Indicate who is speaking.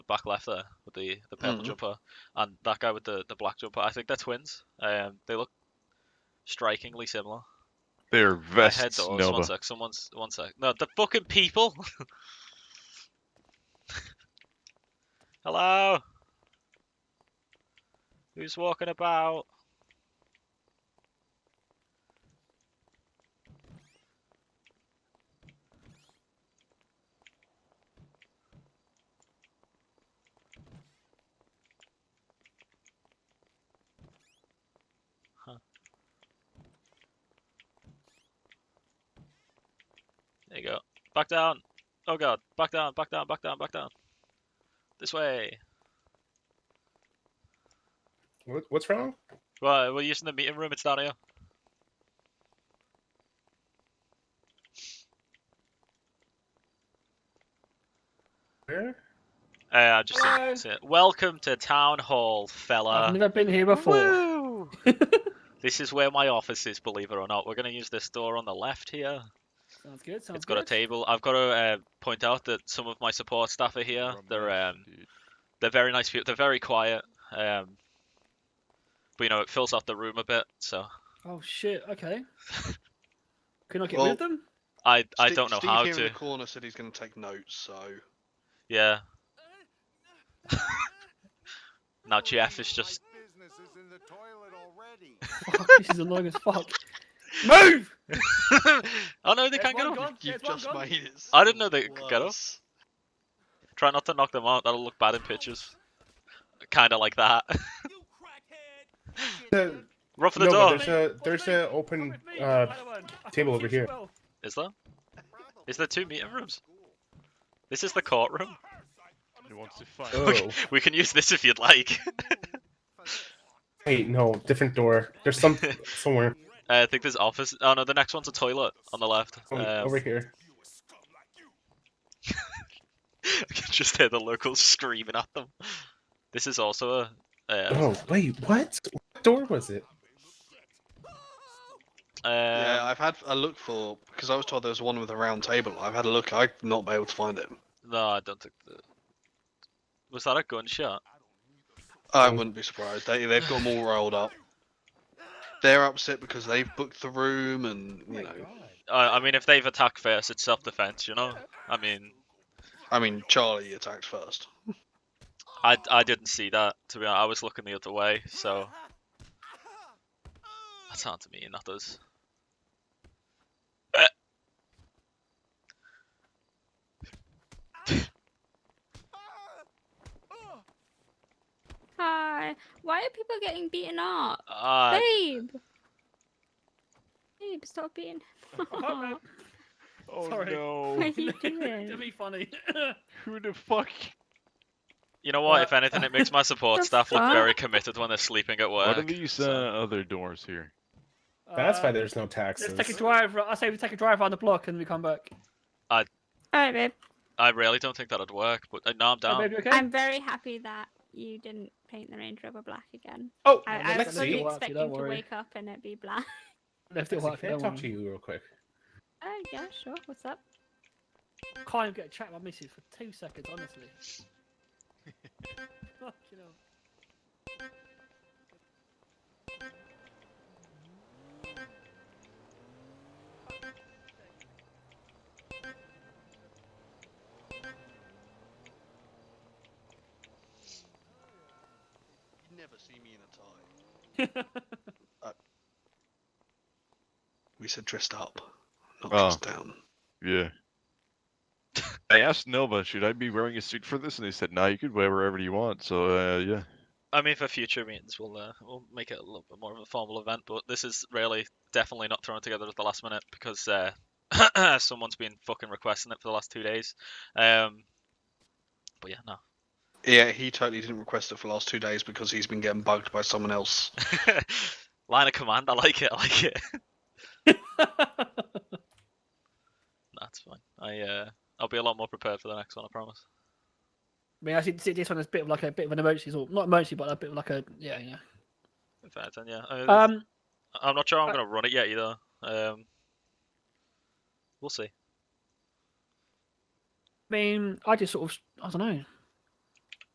Speaker 1: back left there with the the purple
Speaker 2: Mhm.
Speaker 1: jumper, and that guy with the the black jumper. I think they're twins. Um, they look strikingly similar.
Speaker 3: They're
Speaker 1: My head
Speaker 3: vests,
Speaker 1: doors. One
Speaker 3: Nova.
Speaker 1: sec. Someone's. One sec. No, the fucking people. Hello. Who's walking about? There you go. Back down. Oh god. Back down. Back down. Back down. Back down. This way.
Speaker 4: What, what's wrong?
Speaker 1: Right, we're using the meeting room. It's down here.
Speaker 4: Where?
Speaker 1: Uh, I just seen-
Speaker 4: Hello.
Speaker 1: seen it. Welcome to town hall,
Speaker 2: I've
Speaker 1: fella.
Speaker 2: never been here before.
Speaker 1: Uh, Woo! this is where my office is. Believe it or not, we're gonna use this door on the left here.
Speaker 2: Sounds good. Sounds
Speaker 1: it's got a
Speaker 2: Oh, good.
Speaker 1: table. I've got to uh, point out that some of my support staff are here. They're um, they're very nice people. They're very quiet. Um, but you know, it fills up the room a bit. So
Speaker 2: Oh shit. Okay. Can I get rid
Speaker 4: Well-
Speaker 2: of them?
Speaker 1: I I
Speaker 4: Ste-
Speaker 1: don't know
Speaker 4: Steve
Speaker 1: how
Speaker 4: here
Speaker 1: to.
Speaker 4: in the corner said he's going to take notes, so
Speaker 1: Yeah. now Jeff is just
Speaker 5: business is in the toilet already.
Speaker 2: Fuck, this is annoying as fuck. Move!
Speaker 1: oh no, they
Speaker 2: There's
Speaker 1: can't get
Speaker 2: one
Speaker 1: on.
Speaker 2: gone,
Speaker 4: you've
Speaker 2: there's one
Speaker 4: just
Speaker 2: gone.
Speaker 4: made it.
Speaker 1: I didn't know they could get up.
Speaker 4: worse.
Speaker 1: Try not to knock them out. That'll look bad in pictures. Kind of like that.
Speaker 4: No,
Speaker 1: Run for the
Speaker 4: No,
Speaker 1: door.
Speaker 4: but there's a there's a open uh, table over here.
Speaker 1: Is there? Is there two meeting rooms? This is the courtroom.
Speaker 3: He wants to fight.
Speaker 4: oh
Speaker 1: We can use this if you'd like.
Speaker 4: wait, no, different door. There's some somewhere
Speaker 1: Uh, I think there's office. Oh no, the next one's a toilet on the left.
Speaker 4: over,
Speaker 1: Um,
Speaker 4: over here.
Speaker 1: I can just hear the locals screaming at them. This is also a. Uh,
Speaker 4: Oh wait, what? What door was it?
Speaker 5: yeah,
Speaker 1: um,
Speaker 5: I've had a look for because I was told there was one with a round table. I've had a look. I've not been able to find it.
Speaker 1: No, I don't think. The... Was that a gunshot?
Speaker 5: I
Speaker 4: Um,
Speaker 5: wouldn't be surprised. They they've got them all rolled up. They're upset because they've booked the room, and you know,
Speaker 1: I, I mean, if they've attacked first, it's self-defense, you know. I mean,
Speaker 5: I mean, Charlie attacked first.
Speaker 1: I, I didn't see that. To be honest, I was looking the other way, so that sounds mean. That does.
Speaker 6: Hi. Why are people getting beaten up?
Speaker 1: Uh,
Speaker 6: Babe. Babe, stop beating.
Speaker 2: Oh, man.
Speaker 3: Oh
Speaker 2: Sorry.
Speaker 6: What are
Speaker 3: no.
Speaker 6: you
Speaker 2: That'd
Speaker 6: doing?
Speaker 2: be funny.
Speaker 3: Who the fuck?
Speaker 1: you know what?
Speaker 2: Uh,
Speaker 1: If anything, it makes my support
Speaker 6: the
Speaker 1: staff look
Speaker 6: fuck?
Speaker 1: very committed when they're sleeping at work.
Speaker 3: What are these uh, other doors here?
Speaker 4: That's
Speaker 2: Uh,
Speaker 4: why there's no taxes.
Speaker 2: Let's take a drive. ro- I say we take a drive around the block and we come back.
Speaker 6: Alright, babe.
Speaker 1: I really don't think that'd work, but uh, no, I'm
Speaker 2: Hey,
Speaker 1: down.
Speaker 2: Oh, baby, okay?
Speaker 6: I'm very happy that you didn't paint the Range Rover black again.
Speaker 4: Oh,
Speaker 6: I,
Speaker 2: Well,
Speaker 6: I was
Speaker 4: let's
Speaker 6: fully
Speaker 4: see.
Speaker 2: Lexi. Don't
Speaker 6: expecting to
Speaker 2: worry.
Speaker 6: wake up and it be black.
Speaker 2: Left it
Speaker 4: Lexi,
Speaker 2: wide.
Speaker 4: Can I talk to you real quick?
Speaker 6: Oh, yeah, sure. What's up?
Speaker 2: Can't even get a chat with my missus for two seconds, honestly. Fucking hell.
Speaker 5: You'd never see me in a tie. We said dressed up, not
Speaker 3: Oh.
Speaker 5: dressed down.
Speaker 3: Yeah. I asked Nova, should I be wearing a suit for this? And they said, nah, you could wear wherever you want. So, uh, yeah.
Speaker 1: I mean, for future meetings, we'll uh, we'll make it a little bit more of a formal event. But this is really definitely not thrown together at the last minute because uh, someone's been fucking requesting it for the last two days. Um, but yeah, no.
Speaker 5: Yeah, he totally didn't request it for the last two days because he's been getting bugged by someone else.
Speaker 1: Line of command. I like it. I like it. That's fine. I uh, I'll be a lot more prepared for the next one. I promise.
Speaker 2: I mean, I see, see this one as a bit of like a bit of an emergency, sort not emergency, but a bit of like a yeah, yeah.
Speaker 1: If anything, yeah. I mean,
Speaker 2: Um,
Speaker 1: I'm not sure I'm
Speaker 2: uh,
Speaker 1: gonna run it yet either. Um, we'll see.
Speaker 2: I mean, I just sort of I don't know.